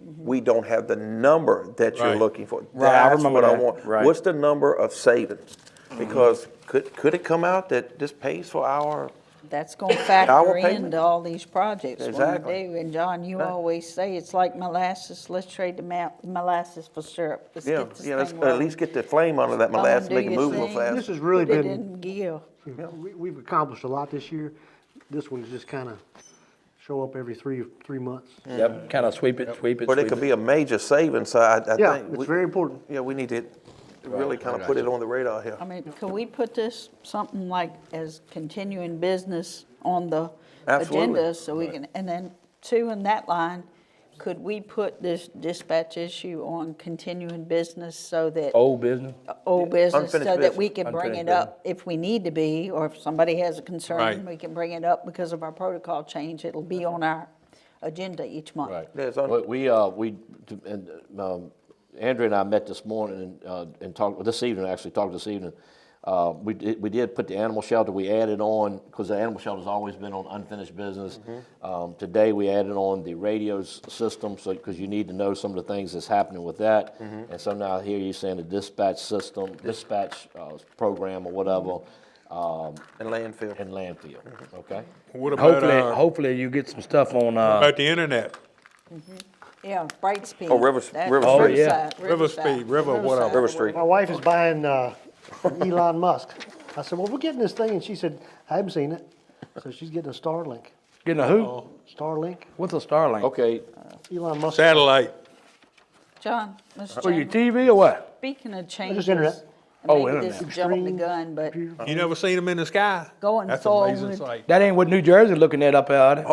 we don't have the number that you're Right. looking for. Right, I That's remember what I that. want. Right. What's the number of savings? Because could, could it come out that this pays for our, That's going to factor payment. into all these projects when we Exactly. do. And John, you Right. always say, it's like molasses, let's trade the ma- molasses for syrup. Let's yeah, get this yeah, let's thing at rolling. least get the flame under that Come molasses, do make it your move a little thing. fast. This has really Put it been- in gear. We, we've accomplished a lot this year. This one's just kind of show up every three, three months. Yep, kind of sweep it, sweep it. But it sweep could be a major savings, so I, I think. Yeah, it's we- very important. Yeah, we need to really kind of put it on the radar here. I mean, could we put this, something like as continuing business on the Absolutely. agenda? So we can, and then two in that line, could we put this dispatch issue on continuing business so that Old business. old business so Unfinished that we business. can bring it Unfinished up if we need to be, or if somebody has a concern, Right. we can bring it up because of our protocol change. It'll be on our agenda each month. Right. There's un- We- We, uh, we, and, um, Andrea and I met this morning and, uh, and talked, this evening, actually, talked this evening. Uh, we did, we did put the animal shelter, we added on, because the animal shelter's always been on unfinished business. Um, today, we added on the radios system, so, because you need to know some of the things that's happening with that. And so now here you're saying the dispatch system, dispatch, uh, program or whatever, um, And landfill. and landfill, okay? What about, Hopefully, uh, hopefully you get some stuff on, uh, about the internet? Yeah, Bright Speed. Oh, River- That's River Street. Oh, yeah. Riverside, River Speed, River Riverside. whatever. River Street. My wife is buying uh, from Elon Musk. I said, well, we're getting this thing, and she said, I haven't seen it. So she's getting a Starlink. getting a who? Starlink, What's a Starlink? Okay, Elon Musk. Satellite. John, Mr. For your Chairman, TV or what? speaking of changes. internet. and Oh, Maybe this internet. is jumping the Extreme gun, but computer. You never seen them in the sky? Going That's amazing forward. sight. That ain't what New Jersey looking at up there.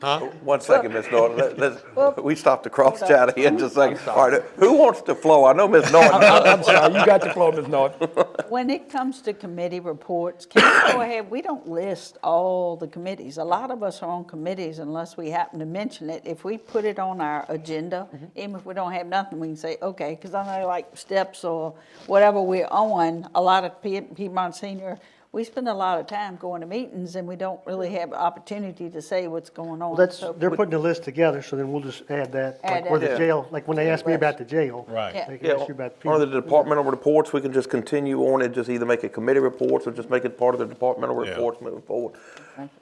Huh? One second, Ms. Norton, Let- let's, we stopped the cross chat here just a second. All right, who wants to flow? I know Ms. Norton. I'm I'm sorry, you got the floor, Ms. Norton. when it comes to committee reports, can we go ahead, we don't list all the committees. A lot of us are on committees unless we happen to mention it. If we put it on our agenda, Mm-hmm. even if we don't have nothing, we can say, okay, because I know like steps or whatever we're on, a lot of Pied- Piedmont Senior, we spend a lot of time going to meetings and we don't really have opportunity to say what's going on. Well, that's, So- they're putting the list together, so then we'll just add that. Add Like where that. the jail, like when they asked me about the jail. Right. Yeah. They can Yeah, ask you about. on the departmental reports, we can just continue on and just either make it committee reports or just make it part of the departmental Yeah. reports moving forward.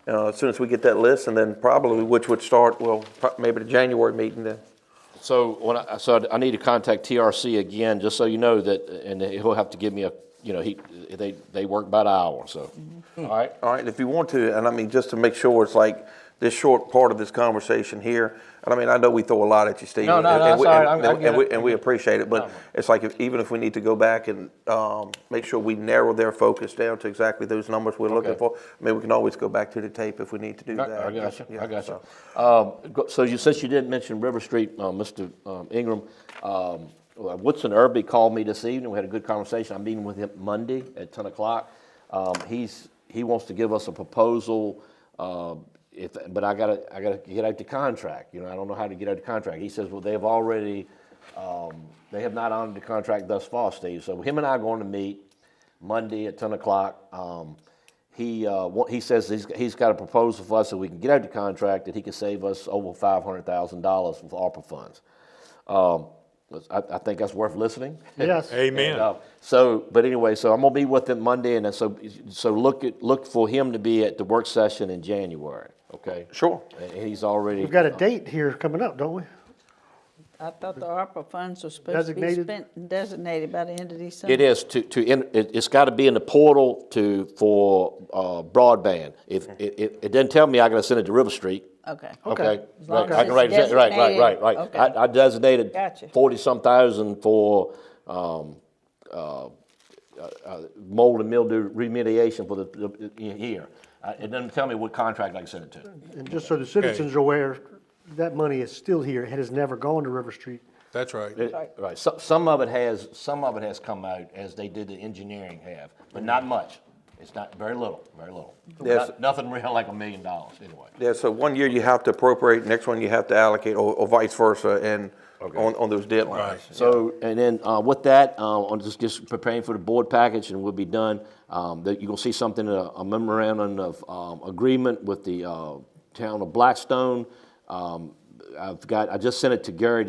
Uh, as soon as we get that list, and then probably, which would start, well, pro- maybe the January meeting then. So when I, so I- I need to contact TRC again, just so you know that, and he'll have to give me a, you know, he, they, they work by the hour, so, all right? All right, if you want to, and I mean, just to make sure it's like this short part of this conversation here, and I mean, I know we throw a lot at you, Steve. No, no, and- no, and that's we- all right. and- I'm- I and get we- it. And we appreciate it, but it's like, if- even if we need to go back and um, make sure we narrow their focus down to exactly those numbers we're looking Okay. for, I mean, we can always go back to the tape if we need to do that. I got you, Yeah, I got so. you. Um, go- So you, since you didn't mention River Street, uh, Mr. um, Ingram, um, well, Woodson Irby called me this evening, we had a good conversation, I'm meeting with him Monday at 10 o'clock. Um, He's, he wants to give us a proposal, uh, if, but I gotta, I gotta get out the contract, you know, I don't know how to get out the contract. He says, well, they've already, um, they have not honored the contract thus far, Steve, so him and I are going to meet Monday at 10 o'clock. Um, he, uh, wa- he says he's, he's got a proposal for us that we can get out the contract that he can save us over $500,000 with ARPA funds. Um, I, I think that's worth listening. Yes. Amen. And, uh, so, but anyway, so I'm gonna be with him Monday, and then so so look at, look for him to be at the work session in January. Okay. Sure. And he's already. We've got a date here coming up, don't we? I thought the ARPA funds were supposed to be Designated? spent and designated by the end of December. It is to, to, in- it- it's got to be in the portal to, for uh, broadband. If, it, it it doesn't tell me I got to send it to River Street. Okay. Oh, Okay, As long right, as I can write, it's it down. right, right, right, right. designated, okay. I I designated Gotcha. forty-some thousand for um, uh, uh, uh, mold and mildew remediation for the- the, the year. I- It doesn't tell me what contract I can send it Mm, to. And just so the citizens are aware, that money is still here. It has never gone to River Street. That's right. It- Right, so- some of it has, some of it has come out as they did the engineering have, but not much. It's not, very little, very little. Yes. Not- Nothing real like a million dollars, anyway. Yeah, so one year you have to appropriate, next one you have to allocate, or, or vice versa, and on, on those deadlines. Right. So, and then uh, with that, uh, I'm just, just preparing for the board package and we'll be done. Um, That you're gonna see something, uh, a a memorandum of um, agreement with the uh, town of Blackstone. Um, I've got, I just sent it to Gary